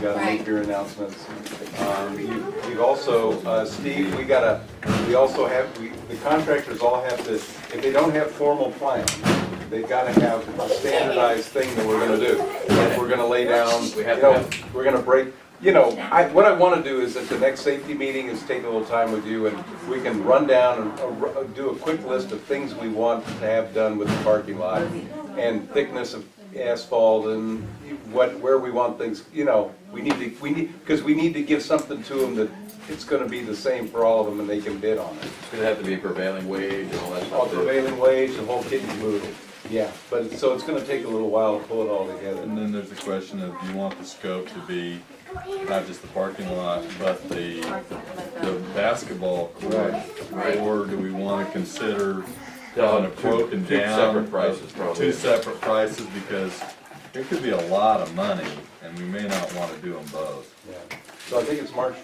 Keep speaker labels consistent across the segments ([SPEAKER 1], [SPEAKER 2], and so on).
[SPEAKER 1] gotta make
[SPEAKER 2] Right.
[SPEAKER 1] your announcements. Um, you- You've also, uh, Steve, we gotta, we also have, we- the contractors all have to, if they don't have formal plans, they've gotta have a standardized thing that we're gonna do. Like, we're gonna lay down,
[SPEAKER 3] We
[SPEAKER 1] you
[SPEAKER 3] have to
[SPEAKER 1] know,
[SPEAKER 3] have-
[SPEAKER 1] we're gonna break, you know, I, what I wanna do is at the next safety meeting is take a little time with you and we can run down and uh, ru- uh, do a quick list of things we want to have done with the parking lot and thickness of asphalt and what, where we want things, you know, we need to, we need, because we need to give something to them that it's gonna be the same for all of them and they can bid on it.
[SPEAKER 3] It's gonna have to be prevailing wage and all that
[SPEAKER 1] All
[SPEAKER 3] stuff. too.
[SPEAKER 1] prevailing wage, Oh, the whole kit and caboodle, yeah, but, it's- so it's gonna take a little while to pull it all
[SPEAKER 4] And
[SPEAKER 1] together.
[SPEAKER 4] then there's the question of, do you want the scope to be not just the parking lot, but the, the basketball court?
[SPEAKER 2] Right.
[SPEAKER 4] Or do we wanna consider
[SPEAKER 3] Yeah,
[SPEAKER 4] on a
[SPEAKER 3] two-
[SPEAKER 4] broken
[SPEAKER 3] two
[SPEAKER 4] down?
[SPEAKER 3] separate prices, probably.
[SPEAKER 4] Two separate prices, because there could be a lot of money, and we may not wanna do them both.
[SPEAKER 1] Yeah. So I think it's March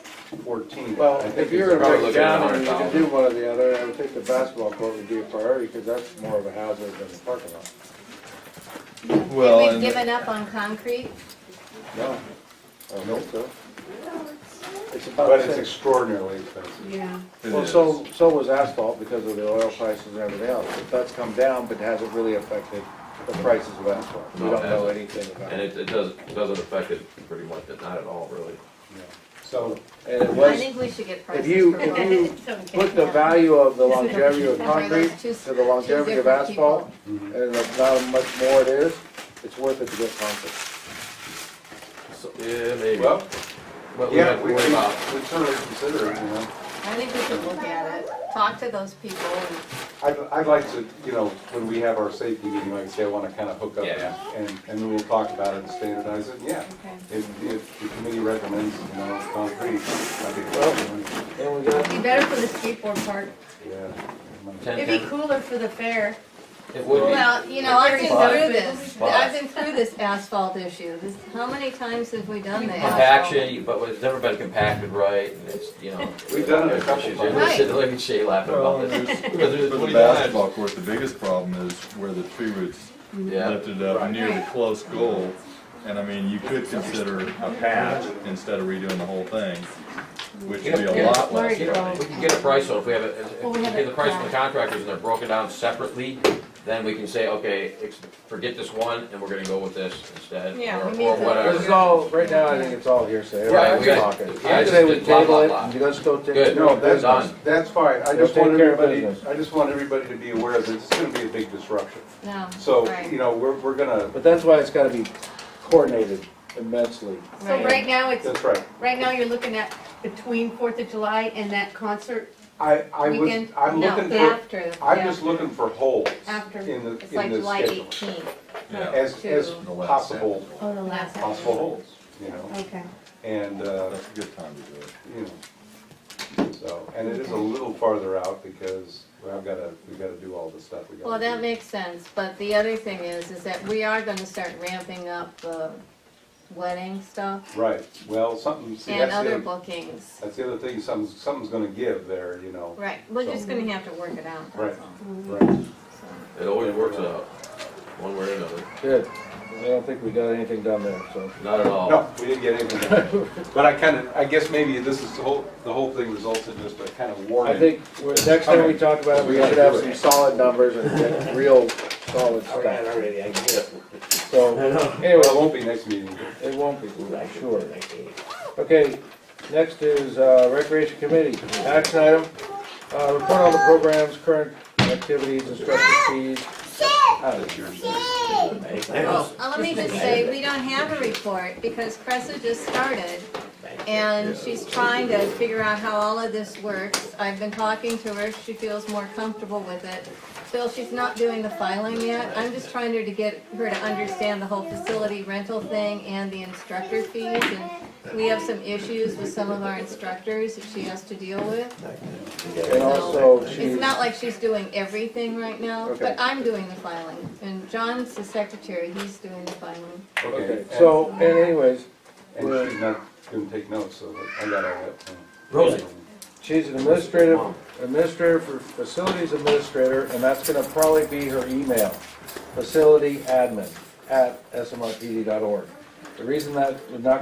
[SPEAKER 1] fourteenth.
[SPEAKER 5] Well, if you're
[SPEAKER 3] probably
[SPEAKER 5] gonna break
[SPEAKER 3] looking at
[SPEAKER 5] down and you can
[SPEAKER 3] 100,000.
[SPEAKER 5] do one or the other, I would think the basketball court would be a priority, because that's more of a hazard than the parking lot.
[SPEAKER 4] Well,
[SPEAKER 2] We've
[SPEAKER 4] and-
[SPEAKER 2] given up on concrete.
[SPEAKER 5] No. I don't think so. It's about
[SPEAKER 1] But
[SPEAKER 5] the
[SPEAKER 1] it's
[SPEAKER 5] same.
[SPEAKER 1] extraordinarily expensive.
[SPEAKER 2] Yeah.
[SPEAKER 4] It
[SPEAKER 5] Well,
[SPEAKER 4] is.
[SPEAKER 5] so, so was asphalt because of the oil prices and everything else. But that's come down, but hasn't really affected the prices of asphalt. We
[SPEAKER 3] No, it
[SPEAKER 5] don't know
[SPEAKER 3] hasn't.
[SPEAKER 5] anything about
[SPEAKER 3] And
[SPEAKER 5] it.
[SPEAKER 3] it, it does, it doesn't affect it pretty much, not at all, really.
[SPEAKER 1] So,
[SPEAKER 5] And it
[SPEAKER 2] I
[SPEAKER 5] was,
[SPEAKER 2] think we should get prices
[SPEAKER 5] you-
[SPEAKER 2] for
[SPEAKER 5] if
[SPEAKER 2] both.
[SPEAKER 5] you put the value of the longevity of
[SPEAKER 2] Remember those
[SPEAKER 5] concrete
[SPEAKER 2] two-
[SPEAKER 5] to the longevity
[SPEAKER 2] two
[SPEAKER 5] of
[SPEAKER 2] different
[SPEAKER 5] asphalt, and
[SPEAKER 1] mhm.
[SPEAKER 5] the- not how much more it is, it's worth it to get concrete.
[SPEAKER 3] So, yeah, maybe.
[SPEAKER 1] well,
[SPEAKER 3] But we
[SPEAKER 1] yeah,
[SPEAKER 3] have to
[SPEAKER 1] we, we
[SPEAKER 3] worry about,
[SPEAKER 1] we certainly consider it, you know.
[SPEAKER 2] I think we should look at it, talk to those people and
[SPEAKER 1] I'd, I'd like to, you know, when we have our safety meeting, like I say, I wanna kinda hook up
[SPEAKER 3] Yeah.
[SPEAKER 1] and, and then we'll talk about it and standardize it, yeah.
[SPEAKER 2] Okay.
[SPEAKER 1] If, if the committee recommends, you know, concrete, that'd be well.
[SPEAKER 5] And we got
[SPEAKER 6] Be better for the skateboard park.
[SPEAKER 1] Yeah.
[SPEAKER 3] ten,
[SPEAKER 6] It'd be
[SPEAKER 3] ten,
[SPEAKER 6] cooler for the fair.
[SPEAKER 3] it would be.
[SPEAKER 2] Well, you know, I've been
[SPEAKER 3] Five.
[SPEAKER 2] through this,
[SPEAKER 3] Five.
[SPEAKER 2] I've been through this asphalt issue, this, how many times have we done the asphalt?
[SPEAKER 3] Compaction, but it's never been compacted right, and it's, you know.
[SPEAKER 1] We've done it a couple
[SPEAKER 3] She's-
[SPEAKER 1] times.
[SPEAKER 3] Look at- look at Shay laughing
[SPEAKER 4] Well,
[SPEAKER 3] about this.
[SPEAKER 4] there's-
[SPEAKER 3] Because uh, there's-
[SPEAKER 4] For
[SPEAKER 3] what
[SPEAKER 4] the
[SPEAKER 3] do you want?
[SPEAKER 4] basketball court, the biggest problem is where the tree roots
[SPEAKER 3] Yeah,
[SPEAKER 4] lifted up near the close goal. And I mean, you could consider a patch instead of redoing the whole thing, which would be a lot less money.
[SPEAKER 3] we can get a price on it, if we have, it- if
[SPEAKER 6] Well,
[SPEAKER 3] we
[SPEAKER 6] we have
[SPEAKER 3] get the
[SPEAKER 6] it
[SPEAKER 3] price from the
[SPEAKER 6] planned.
[SPEAKER 3] contractors and they're broken down separately, then we can say, okay, ex- forget this one, and we're gonna go with this instead,
[SPEAKER 6] Yeah,
[SPEAKER 3] or
[SPEAKER 6] we
[SPEAKER 3] or
[SPEAKER 6] need to-
[SPEAKER 3] whatever.
[SPEAKER 5] This is all, right now, I think it's all hearsay.
[SPEAKER 3] Right, we
[SPEAKER 5] Everyone's
[SPEAKER 3] got-
[SPEAKER 5] talking.
[SPEAKER 3] yeah,
[SPEAKER 5] I'd
[SPEAKER 3] it's
[SPEAKER 5] say
[SPEAKER 3] just
[SPEAKER 5] we
[SPEAKER 3] blah, blah,
[SPEAKER 5] table it,
[SPEAKER 3] blah.
[SPEAKER 5] and let's go take.
[SPEAKER 3] Good.
[SPEAKER 1] No, that's,
[SPEAKER 3] Done.
[SPEAKER 1] that's fine, I just
[SPEAKER 5] Just take
[SPEAKER 1] want
[SPEAKER 5] care of
[SPEAKER 1] everybody,
[SPEAKER 5] business.
[SPEAKER 1] I just want everybody to be aware of it, it's gonna be a big disruption.
[SPEAKER 2] No,
[SPEAKER 1] So,
[SPEAKER 2] Right.
[SPEAKER 1] you know, we're, we're gonna,
[SPEAKER 5] But that's why it's gotta be coordinated immensely.
[SPEAKER 6] So right now, it's,
[SPEAKER 1] that's right.
[SPEAKER 6] right now you're looking at between Fourth of July and that concert.
[SPEAKER 1] I, I was,
[SPEAKER 6] Weekend?
[SPEAKER 1] I'm
[SPEAKER 2] no,
[SPEAKER 1] looking for,
[SPEAKER 2] after,
[SPEAKER 1] I'm
[SPEAKER 2] yeah,
[SPEAKER 1] just looking for holes
[SPEAKER 6] After.
[SPEAKER 1] in the, in the
[SPEAKER 2] it's like July
[SPEAKER 1] schedule.
[SPEAKER 2] eighteenth,
[SPEAKER 4] Yeah.
[SPEAKER 1] As, as
[SPEAKER 2] To-
[SPEAKER 4] The last
[SPEAKER 1] possible,
[SPEAKER 6] Oh, the
[SPEAKER 2] last
[SPEAKER 1] possible holes, you know,
[SPEAKER 6] Okay.
[SPEAKER 1] and, uh,
[SPEAKER 4] That's a good time to do it.
[SPEAKER 1] you know. So, and it is a little farther out because I've gotta, we gotta do all this stuff. we gotta
[SPEAKER 2] well, that
[SPEAKER 1] do.
[SPEAKER 2] makes sense, but the other thing is, is that we are gonna start ramping up the wedding stuff
[SPEAKER 1] Right, well, something, see,
[SPEAKER 2] and
[SPEAKER 1] that's the,
[SPEAKER 2] other
[SPEAKER 1] other-
[SPEAKER 2] bookings.
[SPEAKER 1] that's the other thing, something's, something's gonna give there, you know.
[SPEAKER 2] Right, we're
[SPEAKER 1] So-
[SPEAKER 2] just gonna have to work it out,
[SPEAKER 1] Right,
[SPEAKER 2] that's all.
[SPEAKER 1] right.
[SPEAKER 2] So,
[SPEAKER 3] It always works out, one way or another,
[SPEAKER 5] Good. I don't think we got anything done there, so.
[SPEAKER 3] not at all.
[SPEAKER 1] No, we didn't get anything. But I kinda, I guess maybe this is the whole, the whole thing results in just a kind of warning.
[SPEAKER 5] I think we're- next time we talk about it, we should have some solid numbers and get real solid stuff.
[SPEAKER 7] already, I can get it.
[SPEAKER 5] So,
[SPEAKER 1] Well,
[SPEAKER 5] anyway,
[SPEAKER 1] it won't be next meeting.
[SPEAKER 5] it won't be, sure. Okay, next is uh, Recreation Committee, action item, uh, report on the programs, current activities, instructor fees. Uh,
[SPEAKER 2] Well, uh, let me just say, we don't have a report because Cressa just started and she's trying to figure out how all of this works. I've been talking to her, she feels more comfortable with it. Still, she's not doing the filing yet. I'm just trying her to get her to understand the whole facility rental thing and the instructor fees. And we have some issues with some of our instructors that she has to deal with.
[SPEAKER 5] And also, she,
[SPEAKER 2] It's not like she's doing everything right now,
[SPEAKER 5] Okay.
[SPEAKER 2] but I'm doing the filing. And John's the secretary, he's doing the filing.
[SPEAKER 5] okay, so, and anyways,
[SPEAKER 1] And and she's not gonna take notes, so I got all that. Um,
[SPEAKER 3] Rosie.
[SPEAKER 5] she's an administrative, administrator for facilities administrator, and that's gonna probably be her email, facility admin at smrpd.org. The reason that would not